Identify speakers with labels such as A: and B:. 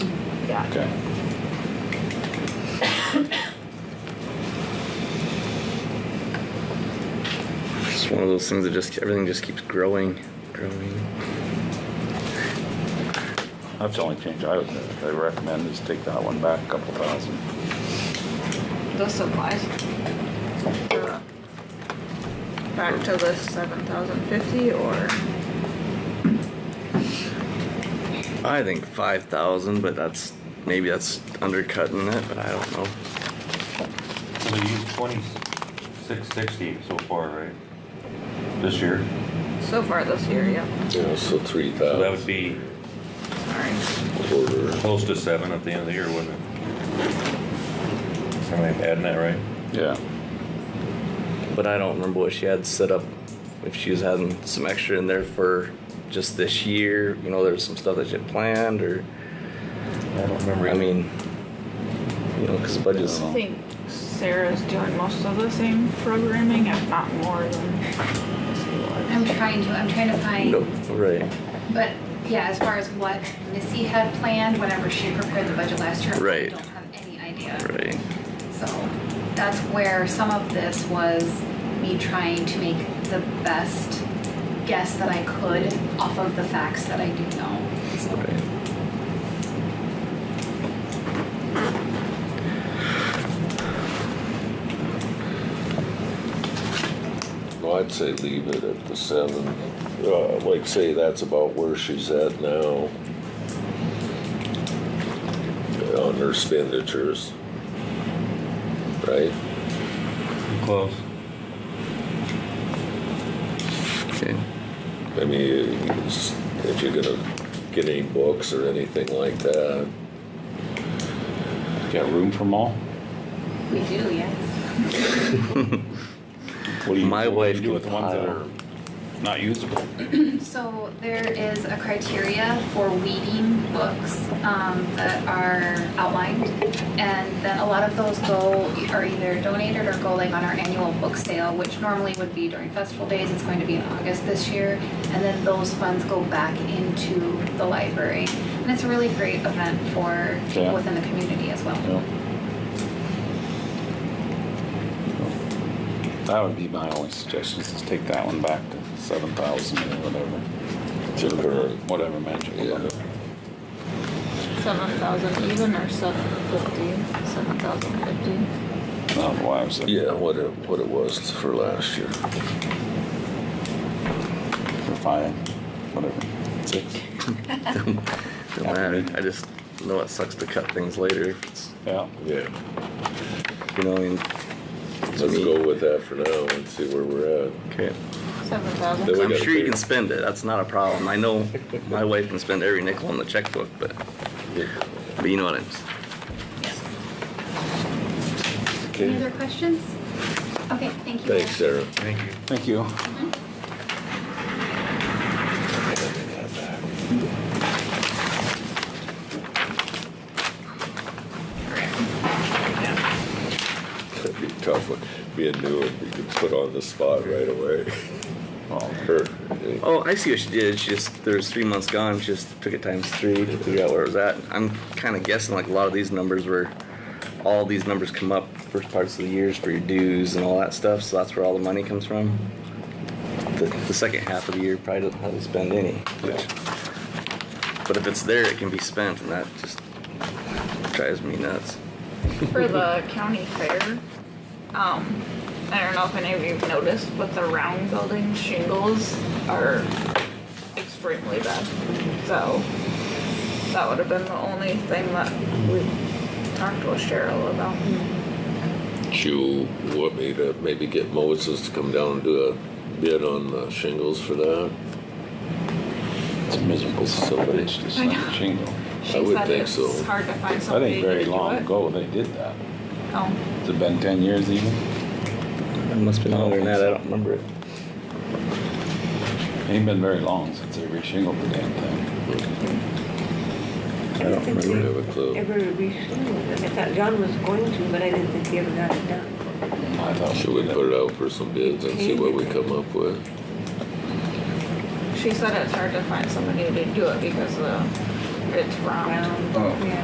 A: got.
B: Okay. It's one of those things that just, everything just keeps growing, growing.
C: That's the only change I would, I recommend is take that one back a couple thousand.
A: Those supplies.
D: Uh, Back to the seven thousand fifty or
B: I think five thousand, but that's, maybe that's undercutting it, but I don't know.
E: So they used twenty-six sixty so far, right? This year?
D: so far this year, yeah,
F: Yeah, so three
E: So that
F: thousand
E: would be
D: sorry.
F: quarter.
E: close to seven at the end of the year, wouldn't it? Am I adding that right?
C: Yeah.
B: But I don't remember what she had set up, if she was having some extra in there for just this year, you know, there was some stuff that she had planned or,
E: I don't remember.
B: I mean, you know, cause budgets.
C: I
D: I think Sarah's doing most of the same programming, if not more than she
G: I'm
D: was.
G: trying to, I'm trying to find,
B: No, right,
G: but yeah, as far as what Missy had planned whenever she prepared the budget last year, I
B: Right.
G: don't have any idea.
B: right.
G: So that's where some of this was me trying to make the best guess that I could off of the facts that I do know.
B: Right.
F: Well, I'd say leave it at the seven. Uh, like say that's about where she's at now. On her expenditures. Right?
E: Close.
B: Okay.
F: I mean, it's- if you're gonna get any books or anything like that,
C: Got room for them all?
G: We do, yes.
C: What do you-
B: My
C: what do you
B: wife
C: do with the
B: could
C: ones that
B: pile.
C: are not usable?
G: So there is a criteria for weeding books um, that are outlined. And then a lot of those go, are either donated or go like on our annual book sale, which normally would be during festival days. It's going to be in August this year. And then those funds go back into the library. And it's a really great event for
C: Yeah.
G: people within the community as well.
C: Yeah. That would be my only suggestion, is to take that one back to seven thousand or whatever.
F: To current.
C: Whatever magic.
F: yeah.
D: Seven thousand even or seven fifty? Seven thousand fifty?
C: Not why I was.
F: Yeah, what it, what it was for last year.
C: Or five, whatever. Six.
B: Don't matter. I just know it sucks to cut things later. It's,
C: Yeah.
F: Yeah.
B: you know, I mean,
F: Let's go with that for now and see where we're at.
B: okay.
D: Seven
F: Then we
D: thousand?
B: I'm
F: gotta
B: sure you
F: figure-
B: can spend it. That's not a problem. I know my wife can spend every nickel in the checkbook, but but you know what I'm. s-
G: Any
F: Okay,
G: other questions? Okay, thank you.
F: thanks, Sarah.
B: Thank you.
C: Thank you.
F: That'd be a tough one. Be a new one, we could put on the spot right away.
C: Well,
F: Her-
B: Oh, I see what she did. She just there's three months gone. She just took it times three to figure out where it was at. I'm kind of guessing like a lot of these numbers were, all these numbers come up first parts of the years for your dues and all that stuff. So that's where all the money comes from. The, the second half of the year probably doesn't hardly spend any. Which, but if it's there, it can be spent, and that just drives me nuts.
D: For the county fair, um, I don't know if any of you've noticed, but the round building shingles are extremely bad. So, that would have been the only thing that we talked with Cheryl about.
F: You want me to maybe get Moses to come down and do a bid on the shingles for that?
C: It's miserable, somebody it's just
D: I
C: like
D: know.
C: a shingle.
D: She
F: would
D: said
F: think
D: it's
F: so.
D: hard to find
C: That
D: somebody
C: ain't
D: to
C: very
D: do
C: long
D: it.
C: ago they did that.
D: Oh,
C: Has it been ten years even?
B: It must be longer than that. I don't remember it.
C: Ain't been very long since they reshingled the damn thing.
B: I don't
F: I don't
B: remember.
F: have a clue.
A: Ever restored. I thought John was going to, but I didn't think he ever got it done.
C: I thought.
F: Should we
C: did
F: put it out for some bids and see what we come up with?
D: she said it's hard to find somebody to do it because, uh, it's round.
A: Round, yeah.